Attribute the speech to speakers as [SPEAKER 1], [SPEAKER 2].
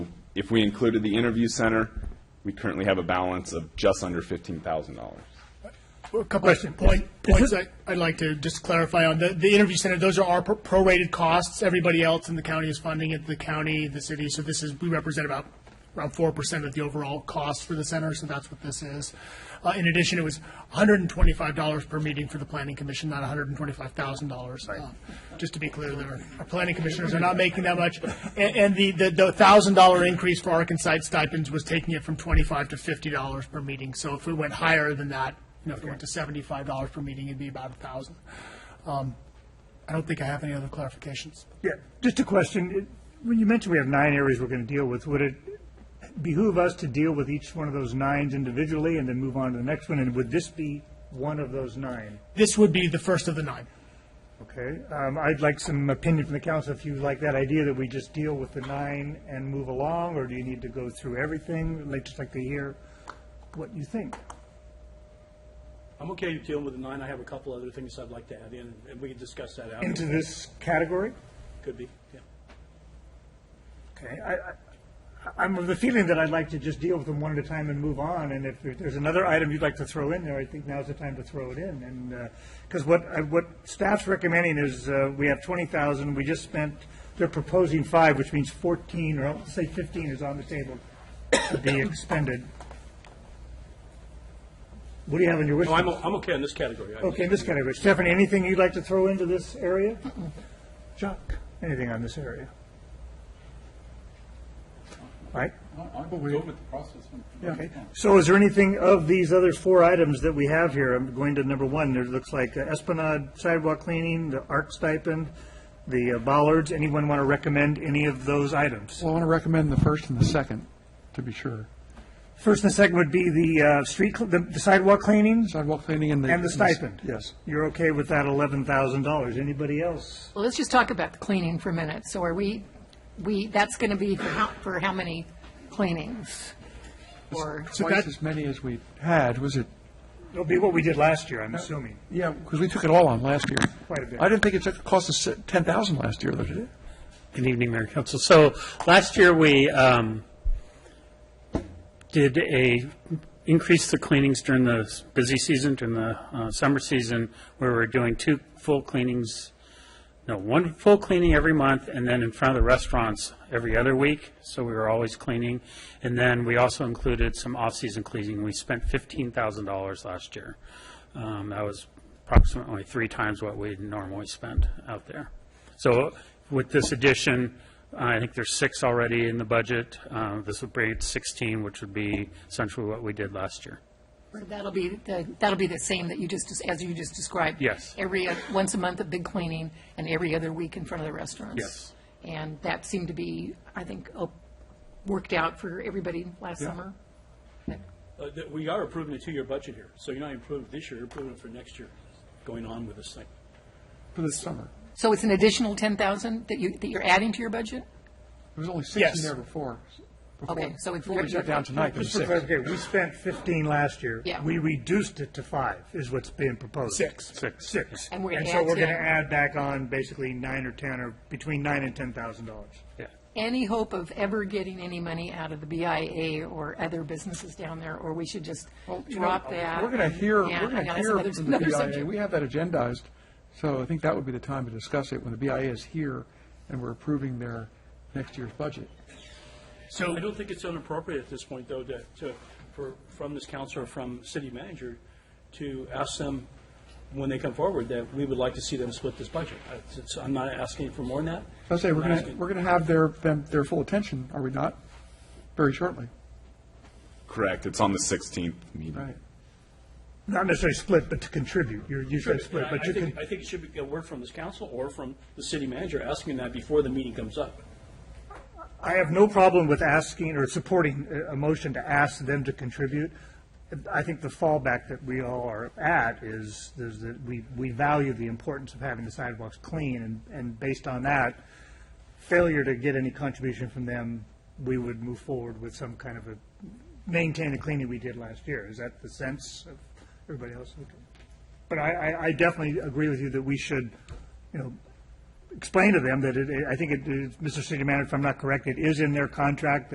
[SPEAKER 1] If we included the interview center, we currently have a balance of just under fifteen thousand dollars.
[SPEAKER 2] A couple of point- points I- I'd like to just clarify on. The the interview center, those are our pro- prorated costs. Everybody else in the county is funding it, the county, the city. So this is, we represent about around 4% of the overall cost for the center, so that's what this is. Uh, In addition, it was $125 per meeting for the planning commission, not $125,000. Um, Just to be clear, there, our planning commissioners are not making that much. A- And the the the $1,000 increase for Arkansas site stipends was taking it from 25 to $50 per meeting. So if it went higher than that, you know, if it went to seventy-five dollars per meeting, it'd be about a thousand. Um, I don't think I have any other clarifications.
[SPEAKER 3] Yeah, just a question. It- When you mentioned we have nine areas we're going to deal with, would it behoove us to deal with each one of those nines individually and then move on to the next one? And would this be one of those nine?
[SPEAKER 2] This would be the first of the nine.
[SPEAKER 3] Okay, um, I'd like some opinion from the council if you like that idea that we just deal with the nine and move along, or do you need to go through everything? Like, just like to hear what you think.
[SPEAKER 4] I'm okay dealing with the nine. I have a couple other things I'd like to add in, and we can discuss that out.
[SPEAKER 3] Into this category?
[SPEAKER 4] Could be, yeah.
[SPEAKER 3] Okay, I, I- I'm of the feeling that I'd like to just deal with them one at a time and move on, and if there's another item you'd like to throw in there, I think now's the time to throw it in, and, because what, I- what staff's recommending is, uh, we have twenty thousand, we just spent, they're proposing five, which means fourteen, or I'll say fifteen is on the table to be expended. What do you have on your wish?
[SPEAKER 4] No, I'm,
[SPEAKER 3] list?
[SPEAKER 4] o- I'm okay in this category. I-
[SPEAKER 3] Okay, this category. Stephanie, anything you'd like to throw into this area? Chuck, anything on this area? Right?
[SPEAKER 5] I'm good with the process.
[SPEAKER 3] Okay. So is there anything of these other four items that we have here? I'm going to number one. There looks like uh, Esplanade sidewalk cleaning, the ARC stipend, the uh, bollards. Anyone want to recommend any of those items?
[SPEAKER 5] Well, I want to recommend the first and the second, to be sure.
[SPEAKER 3] First and second would be the uh, street, cl- the the sidewalk cleaning
[SPEAKER 5] Sidewalk cleaning and the.
[SPEAKER 3] and the stipend.
[SPEAKER 5] Yes.
[SPEAKER 3] You're okay with that eleven thousand dollars. Anybody else?
[SPEAKER 6] Well, let's just talk about the cleaning for a minute. So are we, we, that's going to be for how, for how many cleanings? Or,
[SPEAKER 5] Twice as many as we had, was it?
[SPEAKER 3] It'll be what we did last year, I'm assuming.
[SPEAKER 5] Yeah, because we took it all on last year.
[SPEAKER 3] Quite a bit.
[SPEAKER 5] I didn't think it took, cost us ten thousand last year, though, did it?
[SPEAKER 7] Good evening, Mayor and Council. So last year, we um, did a, increase the cleanings during the s- busy season, during the uh, summer season, where we're doing two full cleanings, no, one full cleaning every month, and then in front of the restaurants every other week, so we were always cleaning. And then we also included some off-season cleaning. We spent $15,000 last year. Um, That was approximately three times what we normally spend out there. So with this addition, I think there's six already in the budget. Uh, This would bring it to 16, which would be essentially what we did last year.
[SPEAKER 6] or that'll be, the that'll be the same that you just, as you just described?
[SPEAKER 7] Yes.
[SPEAKER 6] Every, oth- once a month, a big cleaning, and every other week in front of the restaurants?
[SPEAKER 7] Yes.
[SPEAKER 6] And that seemed to be, I think, oh, worked out for everybody last summer?
[SPEAKER 4] Uh, th- We are approving a two-year budget here, so you're not approving this year, you're approving it for next year, going on with this thing.
[SPEAKER 5] For the summer.
[SPEAKER 6] So it's an additional 10,000 that you, that you're adding to your budget?
[SPEAKER 5] There was only six
[SPEAKER 2] Yes.
[SPEAKER 5] in there before. before-
[SPEAKER 6] Okay, so it's.
[SPEAKER 5] Before we shut down tonight, there's
[SPEAKER 3] Just for
[SPEAKER 5] six.
[SPEAKER 3] clarification, we spent fifteen last year.
[SPEAKER 6] Yeah.
[SPEAKER 3] We reduced it to five, is what's being proposed.
[SPEAKER 2] Six.
[SPEAKER 7] Six.
[SPEAKER 3] Six.
[SPEAKER 6] And we're gonna
[SPEAKER 3] so
[SPEAKER 6] add
[SPEAKER 3] we're gonna
[SPEAKER 6] 10.
[SPEAKER 3] add back on basically nine or ten, or between nine and ten thousand dollars.
[SPEAKER 7] Yeah.
[SPEAKER 6] any hope of ever getting any money out of the BIA or other businesses down there, or we should just
[SPEAKER 5] You know,
[SPEAKER 6] drop that?
[SPEAKER 5] We're going to hear,
[SPEAKER 6] Yeah,
[SPEAKER 5] we're going
[SPEAKER 6] I
[SPEAKER 5] to
[SPEAKER 6] know, that's
[SPEAKER 5] hear
[SPEAKER 6] another-
[SPEAKER 5] from the
[SPEAKER 6] another
[SPEAKER 5] BIA.
[SPEAKER 6] subject.
[SPEAKER 5] We have that agendized, so I think that would be the time to discuss it when the BIA is here and we're approving their next year's budget.
[SPEAKER 4] So I don't think it's inappropriate at this point, though, to, to, for, from this council or from city manager, to ask them, when they come forward, that we would like to see them split this budget. I- it's- I'm not asking for more than that.
[SPEAKER 5] So I say, we're
[SPEAKER 4] I'm
[SPEAKER 5] going to,
[SPEAKER 4] asking-
[SPEAKER 5] we're going to have their, them, their full attention, are we not? Very shortly,
[SPEAKER 1] Correct, it's on the sixteenth meeting.
[SPEAKER 5] right?
[SPEAKER 3] Not necessarily split, but to contribute. You're usually split,
[SPEAKER 4] I-
[SPEAKER 3] but
[SPEAKER 4] I
[SPEAKER 3] you
[SPEAKER 4] think,
[SPEAKER 3] can,
[SPEAKER 4] I think it should be a word from this council or from the city manager asking that before the meeting comes up.
[SPEAKER 3] I have no problem with asking or supporting a, a motion to ask them to contribute. I think the fallback that we all are at is, is that we, we value the importance of having the sidewalks clean, and, and based on that, failure to get any contribution from them, we would move forward with some kind of a, maintain the cleaning we did last year. Is that the sense of everybody else? Okay. But I, I, I definitely agree with you that we should, you know, explain to them that it, I think it, Mr. City Manager, if I'm not correct, it is in their contract